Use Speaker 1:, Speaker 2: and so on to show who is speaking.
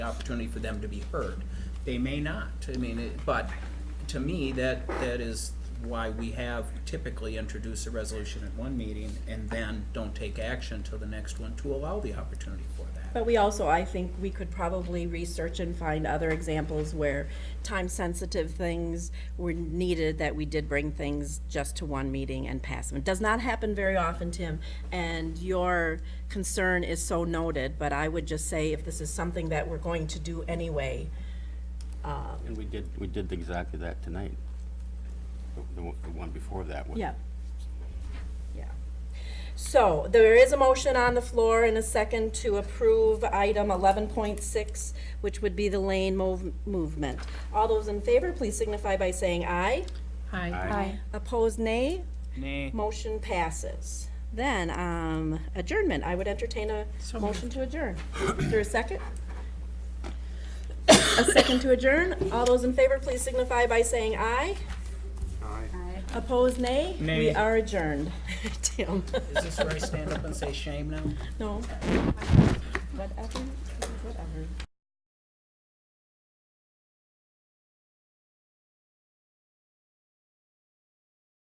Speaker 1: opportunity for them to be heard. They may not, I mean, it- but to me, that, that is why we have typically introduce a resolution at one meeting and then don't take action till the next one to allow the opportunity for that.
Speaker 2: But we also, I think, we could probably research and find other examples where time-sensitive things were needed, that we did bring things just to one meeting and pass them. It does not happen very often, Tim, and your concern is so noted, but I would just say if this is something that we're going to do anyway,
Speaker 3: And we did, we did exactly that tonight. The- The, one- the one before that was.
Speaker 2: Yeah. Yeah. So there is a motion on the floor in a second to approve item 11.6, which would be the lane move- movement. All those in favor, please signify by saying aye.
Speaker 3: Aye.
Speaker 2: Opposed, nay.
Speaker 1: Nay.
Speaker 2: Motion passes. Then um, adjournment. I would entertain a motion to adjourn. Is there a second? A second to adjourn. All those in favor, please signify by saying aye. Aye. Opposed, nay. We
Speaker 1: Nay.
Speaker 2: are adjourned. Tim,
Speaker 1: Is this where I stand up and say shame now?
Speaker 2: no. Whatever, whatever.